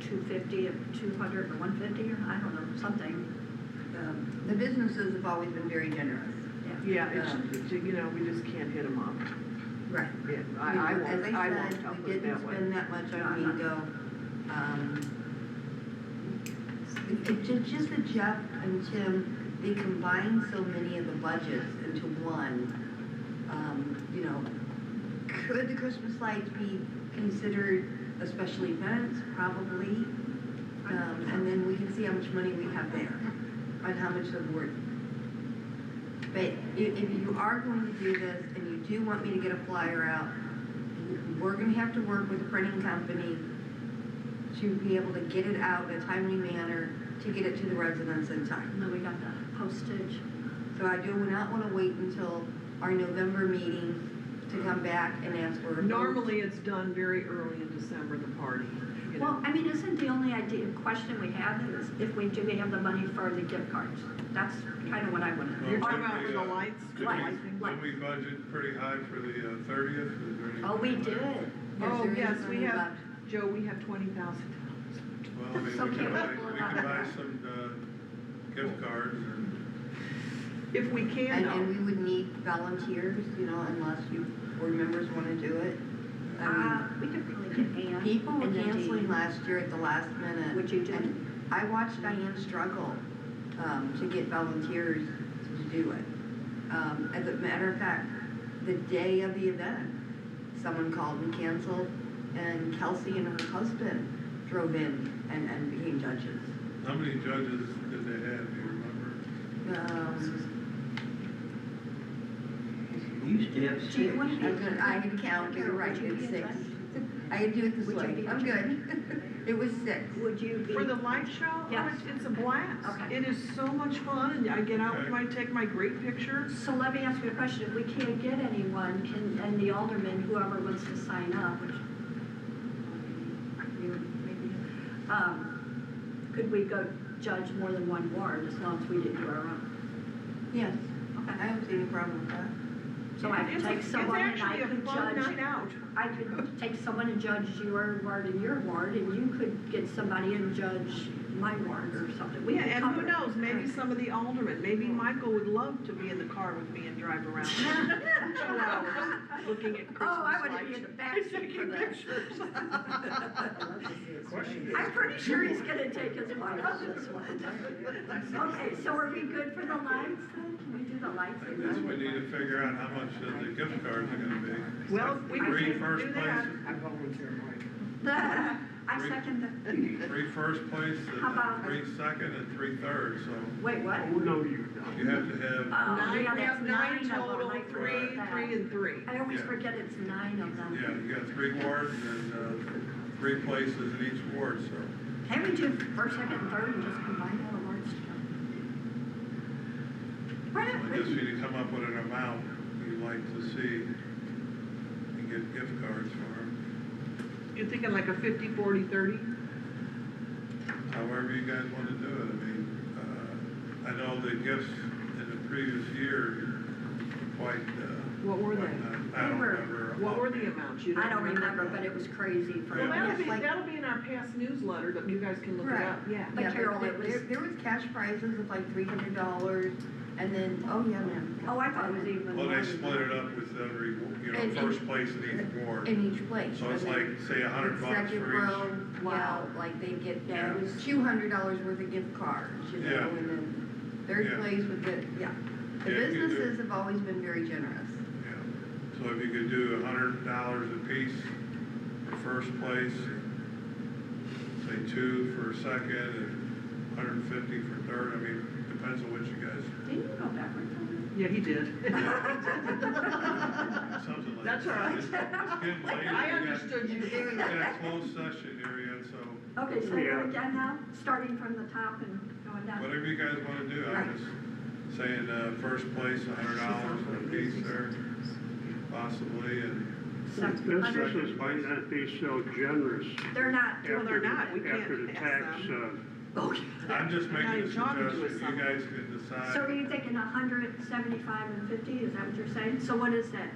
two fifty, two hundred, or one fifty, or I don't know, something, Um, The businesses have always been very generous. yeah. Yeah, it's, it's, you know, we just can't hit them up. Right. Yeah, I, I won't, I won't, I'll put As it I said, that we didn't way. spend that much on Mingo. Um, It, it ju- just that Jeff and Tim, they combined so many of the budgets into one. Um, You know, could the Christmas lights be considered a special event? Probably. Um, And then we can see how much money we have there, and how much the board but i- if, if you are going to do this and you do want me to get a flyer out, we're gonna have to work with the printing company to be able to get it out in a timely manner, to get it to the residents in time. And then we got the postage, So I do not wanna wait until our November meeting to come back and ask for. a vote. Normally, it's done very early in December, the party, you well, know. I mean, isn't the only idea, question we have is if we do have the money for the gift cards, that's kind of what I wanna You're do. talking Well, about for did the we, uh, lights? did we- Lights, lights. Did we budget pretty high for the uh, thirtieth? Oh, we did, Yes, Oh, there is yes, money we have, left. Joe, we have twenty thousand dollars. Well, I mean, we So can can we buy, pull we it out can of buy that? some, uh, gift cards and, If we can, And, and though. we would need volunteers, you know, unless you, board members wanna do it. I mean, uh, we could probably get Ann. Um, People were and Nadine. canceling last year at the last minute. Would you do it? and I watched Diane struggle, um, to get volunteers to do it. Um, as a matter of fact, the day of the event, someone called and canceled, and Kelsey and her husband drove in and, and became judges. how many judges did they have, do you remember? Um, You used to have six. Do you wanna I was gonna, I had to count, you're right, Would you be it's six. interested? I could do it this Would you way, be I'm good. It was six. Would you be? For the light show, oh, Yes. it's, it's a blast. Okay. It is so much fun, and I get out with my, take my great pictures. So let me ask you a question, if we can't get anyone, can, and the alderman, whoever wants to sign up, which you maybe, um, could we go judge more than one ward as long as we didn't do our own? Yes, I Okay. don't see any problem with that. So I could It's a- take someone and I could It's actually a fun night judge, out. I could take someone and judge your ward and your ward, and you could get somebody and judge my ward or something. We Yeah, could and who cover it. knows, maybe some of the aldermen, maybe Michael would love to be in the car with me and drive around for two hours, looking at Christmas lights. Oh, I wanna be in the backseat for Taking that. pictures. I'm pretty sure he's gonna take his wife on this one. Okay, so are we good for the lights then? Can we do the lights? I guess we need to figure out how much of the gift cards are gonna be. Well, we can Three do first that. places. I volunteer, Mike. I second the, Three first place, How about- and three second, and three third, so wait, what? Oh, no, you you have don't. to have, Oh, yeah, Nine, we that's have nine nine of them. total, I forgot three, that. three and three. I always Yeah. forget it's nine of yeah, them. you got three wards and, uh, three places in each ward, so. Can we do first, second, and third and just combine all the words together? Why not? I guess we need to come up with an amount you'd like to see and get gift cards for 'em. You're thinking like a fifty, forty, thirty? however you guys want to do it. I mean, uh, I know the gifts in the previous year quite, uh. What were quite they? not- I don't They were- remember. What were the amounts? You I don't remember, but it was crazy for Well, that'll me. be, Like- that'll be in our past newsletter, that you guys can look it Right. up, yeah. But Yeah, Carol, there- it was- There, there was cash prizes of like three hundred dollars, and then, oh, yeah, ma'am. Oh, I thought it was even. more Well, they than split it that. up with every, you And- know, first place in each ward. In each place. So it's and like, say, a then hundred bucks second for each. row, Wow. Yeah, like they get, Yeah, it was- two hundred dollars worth of gift cards, you Yeah. know, and then third Yeah. place with the, yeah. The Yeah, you do. businesses have always been very generous. Yeah. So if you could do a hundred dollars a piece for first place, say two for second, and hundred and fifty for third, I mean, depends on what you guys, Didn't you go backwards on Yeah, he did. something like. That's all right. It's getting late, we I got- understood you doing We that. got a closed session here yet, so that? Okay, so Yeah. we're done now, starting from the top and going down. whatever you guys wanna do, I'm just saying, uh, first place, a hundred dollars for a piece there, possibly, and Second, This hundred- is, might not be so generous They're not Well, doing. they're not, we after can't the pass tax, them. uh, I'm just Now making you're a talking to us, suggestion, you someone. guys can decide. So are you thinking a hundred, seventy-five and fifty, is that what you're saying? So what is that?